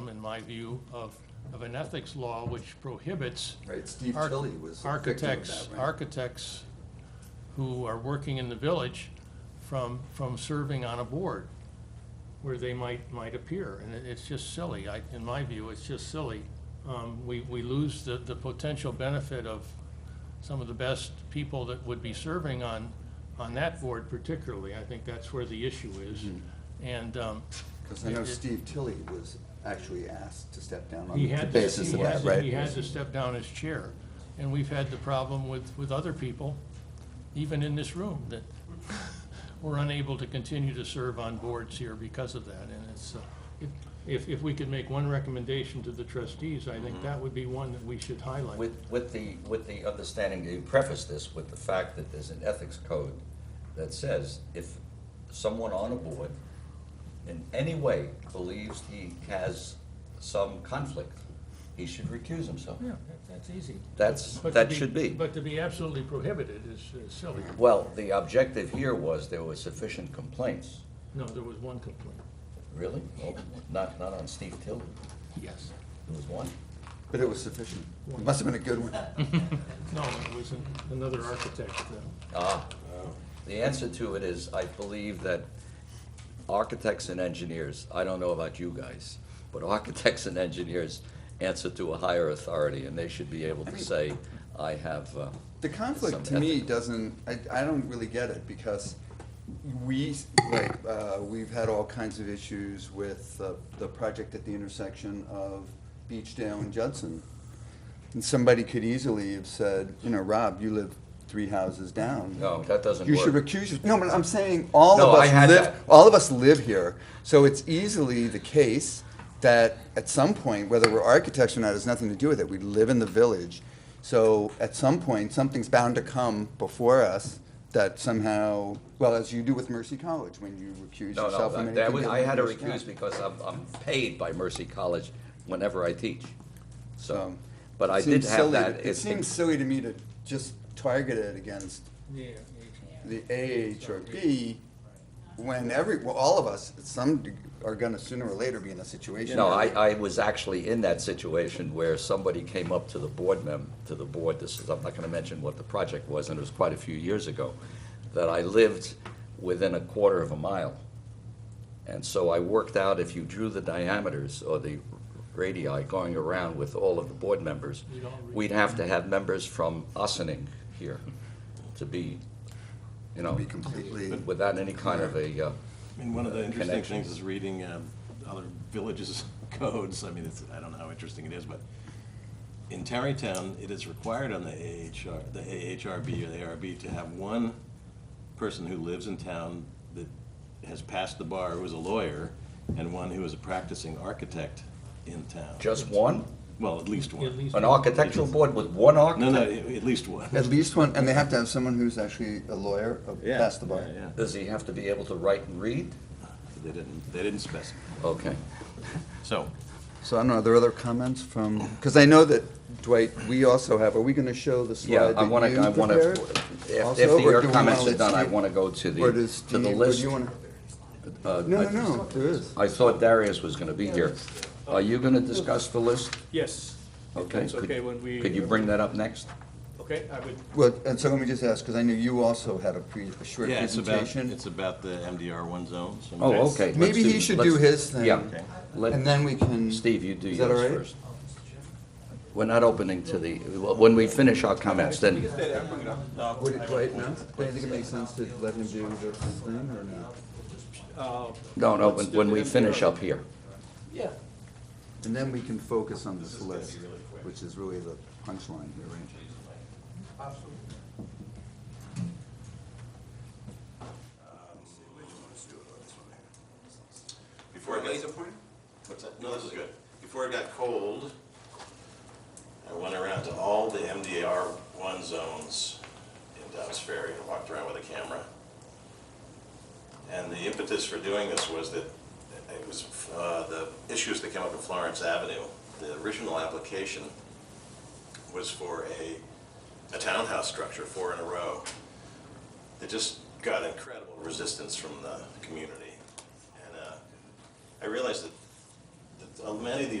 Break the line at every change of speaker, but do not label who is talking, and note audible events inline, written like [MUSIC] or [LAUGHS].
criticism, in my view, of, of an ethics law which prohibits
Right, Steve
arch-
Tilley was a victim of
architects,
that, right?
architects who are working in the village from, from serving on a board where they might, might appear. And it- it's just silly. I, in my view, it's just silly. Um, we, we lose the, the potential benefit of some of the best people that would be serving on, on that board particularly. I think that's where the issue is.
Mm-hmm.
And, um,
Because I know
it- it-
Steve Tilley was actually asked to step down on
he
the
had to,
basis
he
of that,
had to,
right?
he had to step down as chair. And we've had the problem with, with other people, even in this room, that [LAUGHS] we're unable to continue to serve on boards here because of that. And it's, uh, if- if, if we could make one recommendation to the trustees, I
Mm-hmm.
think that would be one that we should highlight.
With, with the, with the understanding, that you preface this with the fact that there's an ethics code that says if someone on a board in any way believes he has some conflict, he should recuse himself.
Yeah, that- that's easy.
That's,
But to
that should be.
But to be absolutely prohibited is is silly.
Well, the objective here was there were sufficient complaints.
No, there was one complaint.
Really? Well, Not, not on Steve Tilden.
Yes.
There was one.
But it was sufficient. It must have been a good one.
No, it was an- another architect. uh,
Ah, the answer to it is, I believe that architects and engineers, I don't know about you guys, but architects and engineers answer to a higher authority, and they should be able to say, I have, uh,
The
Some
conflict to me
ethics.
doesn't, I, I don't really get it because we, s- like, uh, we've had all kinds of issues with uh, the project at the intersection of Beechdale and Judson. And somebody could easily have said, you know, Rob, you live three houses down.
no, that doesn't
You should
work.
recuse yourself. No, but I'm saying all
No,
of
I had
us live.
that.
All of us live here, so it's easily the case that at some point, whether we're architects or not, has nothing to do with it. We live in the village, so at some point, something's bound to come before us that somehow, well, as you do with Mercy College when you recuse
No, no,
yourself from
that-
anything.
that was, I had to
dealing with Mercy
recuse
College.
because I'm, I'm paid by Mercy College whenever I teach, so,
So,
but I
It
did
seems
have
silly to-
that.
It seems silly to me to just target it against the AHRB, when every, well, all of us, some deg- are gonna sooner or later be in a situation.
No, I,
where-
I was actually in that situation where somebody came up to the board mem, to the board, this is, I'm not gonna mention what the project was, and it was quite a few years ago, that I lived within a quarter of a mile. And so I worked out if you drew the diameters or the radii going around with all of the board members,
You'd all reach-
we'd have to have members from Ossining here to be, you know,
Be completely,
without any kind of a, uh,
I mean, one of the interesting
connection.
things is reading um, other villages' [LAUGHS] codes. I mean, it's, I don't know how interesting it is, but in Tarrytown, it is required on the AHR, the AHRB or the ARB to have one person who lives in town that has passed the bar, who is a lawyer, and one who is a practicing architect in town.
just one?
Well, at least
At
one.
least-
An architectural board with one
No,
architect?
no, at least one.
at least one, and they have to have someone who's actually a lawyer, a-
Yeah,
that's the bar.
yeah, yeah.
Does he have to be able to write and read?
They didn't, they didn't specify.
Okay.
So,
So I don't know, are there other comments from, because I know that Dwight, we also have, are we gonna show the
Yeah,
slide
I want
that
to, I
you
want to,
prepared?
if
also,
if
or
your
do we
comments
wanna
are
let
done, I
Steve-
want to go to the,
Or does
to
Steve,
the
or do
list.
you wanna?
Uh,
No,
I-
no, no, there is.
I thought Darius was going to be here. Are you going to discuss the list?
Yes. If
Okay.
That's
could-
okay when we.
Could you bring that up next?
Okay, I would,
Well, and so let me just ask, because I knew you also had a pre, a short
yeah, it's about,
presentation.
it's about the MDR one zone. so-
Oh, okay. let's
Maybe he should do
let's-
his thing.
Yeah.
Okay.
Let-
And then we can.
Steve, you do
Is that all
yours
right?
first. We're not opening to the, when we finish our comments, then,
Would it, right, no? Do you think it makes sense to let him do this thing or not?
don't
Let's
open,
do
when
the
we finish
MDR.
up here.
yeah,
And then we can focus on this list, which is really the punchline here, right?
Before I got. What's that? No, this is good. Before I got cold, I went around to all the MDR one zones in Dobbs Ferry and walked around with a camera. And the impetus for doing this was that it was, uh, the issues that came up in Florence Avenue. The original application was for a, a townhouse structure, four in a row. It just got incredible resistance from the community. And, uh, I realized that, that many of these